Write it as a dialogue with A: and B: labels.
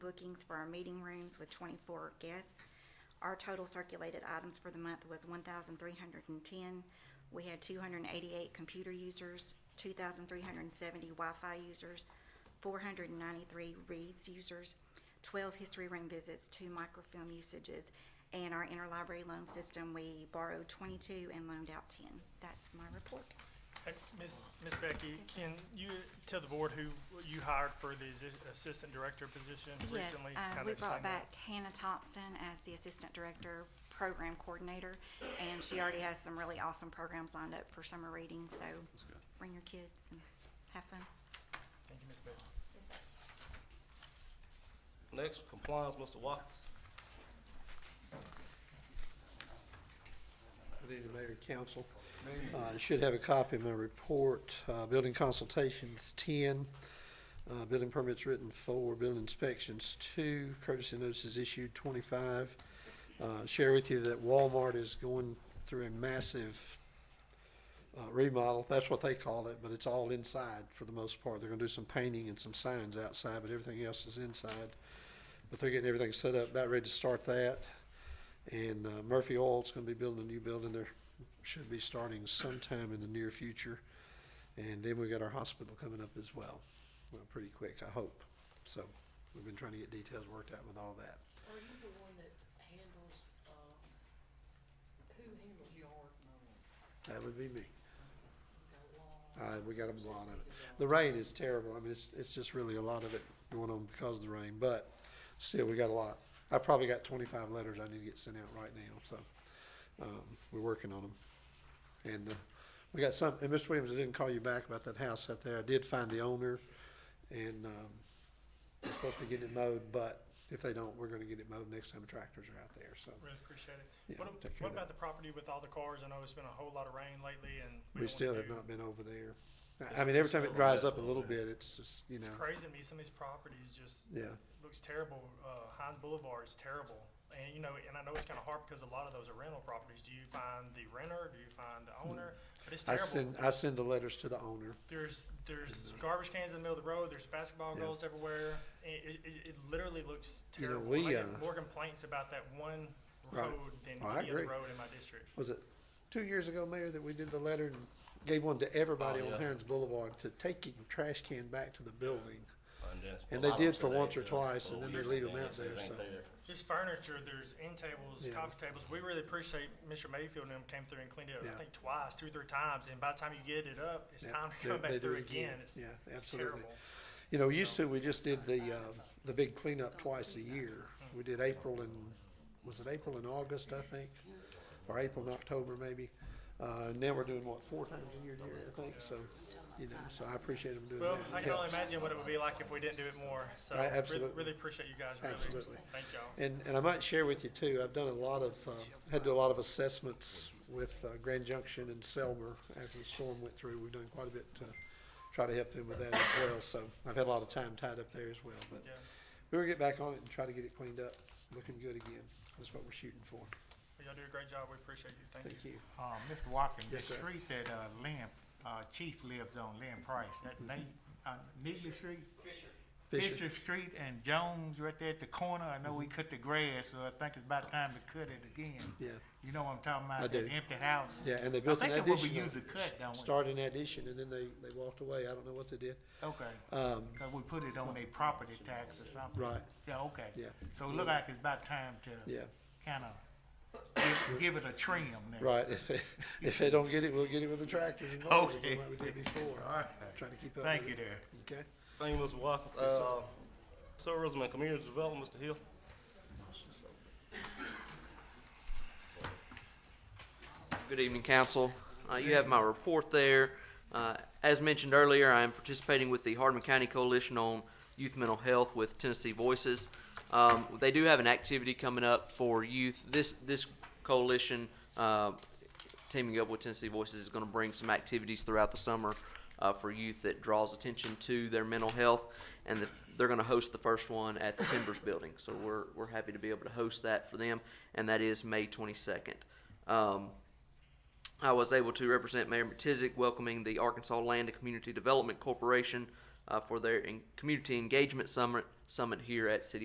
A: bookings for our meeting rooms with twenty-four guests. Our total circulated items for the month was one thousand three hundred and ten. We had two hundred and eighty-eight computer users, two thousand three hundred and seventy Wi-Fi users, four hundred and ninety-three reads users, twelve history room visits, two microfilm usages, and our interlibrary loan system, we borrowed twenty-two and loaned out ten. That's my report.
B: Hey, Miss, Miss Becky,
A: Yes, sir.
B: can you tell the board who you hired for the assi- assistant director position
A: Yes,
B: recently?
A: uh,
B: Kinda
A: we
B: explain
A: brought
B: that.
A: back Hannah Thompson as the Assistant Director Program Coordinator, and she already has some really awesome programs lined up for summer reading, so bring your kids and have fun.
B: Thank you, Miss Becky.
C: Next, compliance, Mr. Watkins.
D: Good evening, Mayor and Council. Uh, you should have a copy of my report, uh, building consultations ten, uh, building permits written four, building inspections two, courtesy notices issued twenty-five. Uh, share with you that Walmart is going through a massive, uh, remodel, that's what they call it, but it's all inside for the most part. They're gonna do some painting and some signs outside, but everything else is inside. But they're getting everything set up, about ready to start that. And uh, Murphy Oil's gonna be building a new building there, should be starting sometime in the near future. And then we got our hospital coming up as well, uh, pretty quick, I hope. So, we've been trying to get details worked out with all that.
E: Are you the one that handles, uh, who handles yard mowing?
D: That would be me.
E: Got a lawn?
D: Uh, we got a lot of it. The rain is terrible, I mean, it's, it's just really a lot of it going on because of the rain, but still, we got a lot. I probably got twenty-five letters I need to get sent out right now, so, um, we're working on them. And, uh, we got some, and Mr. Williams, I didn't call you back about that house out there. I did find the owner, and, um, we're supposed to be getting it mowed, but if they don't, we're gonna get it mowed next time the tractors are out there, so.
B: Really appreciate it.
D: Yeah,
B: What,
D: take care
B: what
D: of
B: about the property with all the cars? I know it's been a whole lot of rain lately and.
D: We
B: don't
D: still
B: wanna
D: have
B: do-
D: not been over there. I- I mean, every time it dries up a little bit, it's just, you
B: It's
D: know,
B: crazy to me. Some of these properties just
D: yeah.
B: looks terrible. Uh, Heinz Boulevard is terrible. And you know, and I know it's kinda hard because a lot of those are rental properties. Do you find the renter? Do you find the owner? But it's
D: Hmm. I
B: terrible.
D: send, I send the letters to the owner.
B: There's there's garbage cans in the middle of the road. There's basketball
D: Yeah.
B: goals everywhere. It, it, it- it literally looks
D: You know,
B: terrible.
D: we,
B: I get
D: uh,
B: more complaints about that one
D: Right.
B: road than
D: Oh, I
B: any other
D: agree.
B: road in my district.
D: Was it two years ago, Mayor, that we did the letter and gave one to everybody
C: Oh,
D: on
C: yeah.
D: Hines Boulevard to take your trash can back to the building?
C: And that's-
D: And they
C: a lot of
D: did
C: them
D: for
C: say they
D: once or
C: do.
D: twice,
C: Well,
D: and then
C: we
D: they
C: used
D: leave
C: to
D: 'em
C: do it,
D: out
C: so it
D: there,
C: ain't
D: so.
C: there.
B: There's furniture. There's end tables,
D: Yeah.
B: coffee tables. We really appreciate Mr. Mayfield and them came through and cleaned it up.
D: Yeah.
B: I think twice, two or three times. And by the time you get it up, it's
D: Yeah,
B: time to
D: they-
B: come
D: they
B: back
D: do
B: through
D: it again.
B: again. It's,
D: Yeah,
B: it's
D: absolutely.
B: terrible.
D: You know, used to, we just did the, uh, the big cleanup twice a year. We did April and, was it April and August, I think? Or April and October, maybe? Uh, now we're doing, what, four times a year, Jerry, I think, so, you know, so I appreciate them doing that.
B: Well,
D: It
B: I can only
D: helps.
B: imagine what it would be like if we didn't do it more. So
D: I-
B: really-
D: absolutely.
B: really appreciate you guys. Really.
D: Absolutely.
B: Thank y'all.
D: And, and I might share with you too, I've done a lot of, uh, had to do a lot of assessments with uh, Grand Junction and Selmer after the storm went through. We've done quite a bit to try to help them with that as well, so I've had a lot of time tied up there as well. But
B: Yeah.
D: we'll get back on it and try to get it cleaned up, looking good again. That's what we're shooting for.
B: Well, Y'all do a great job. We appreciate you. Thank,
D: Thank you.
F: Uh, Mr. Watkins, the
D: Yes, sir.
F: street that, uh, Lynn, uh, Chief lives on, Lynn Price, that name, uh, Nibley Street?
D: Mm-hmm. Fisher. Mm-hmm.
F: Fisher Street and Jones right there at the corner, I know we cut the grass, so I think it's about time to cut it again.
D: Yeah,
F: You know what I'm talking
D: I
F: about,
D: do.
F: that empty house?
D: yeah, and they built an
F: think
D: addition.
F: that's what we
D: on
F: use to
D: it.
F: cut, don't we?
D: Started an addition and then they, they walked away. I don't know what they did.
F: Okay,
D: Um,
F: cause we put it on their property tax or something.
D: Right.
F: Yeah, okay.
D: Yeah.
F: So it look like it's about time to
D: yeah.
F: kinda give, give it a trim now.
D: Right, if they, if they don't get it, we'll get it with a tractor and mowers,
F: Okay.
D: like we did before.
F: Alright.
D: Trying to keep up
F: Thank
D: with
F: you
D: it.
F: there.
D: Okay?
C: Thank you, Mr. Watkins. Uh, tourism and community development, Mr. Hill.
G: Good evening, council. Uh, You have my report there. Uh, As mentioned earlier, I am participating with the Hardman County Coalition on Youth Mental Health with Tennessee Voices. Um, They do have an activity coming up for youth. This, this coalition uh, teaming up with Tennessee Voices is going to bring some activities throughout the summer uh, for youth that draws attention to their mental health, and the, they're going to host the first one at the Timbers Building. So we're we're happy to be able to host that for them, and that is May 22nd. Um, I was able to represent Mayor McTizick welcoming the Arkansas Land and Community Development Corporation uh, for their en- community engagement summit summit here at City.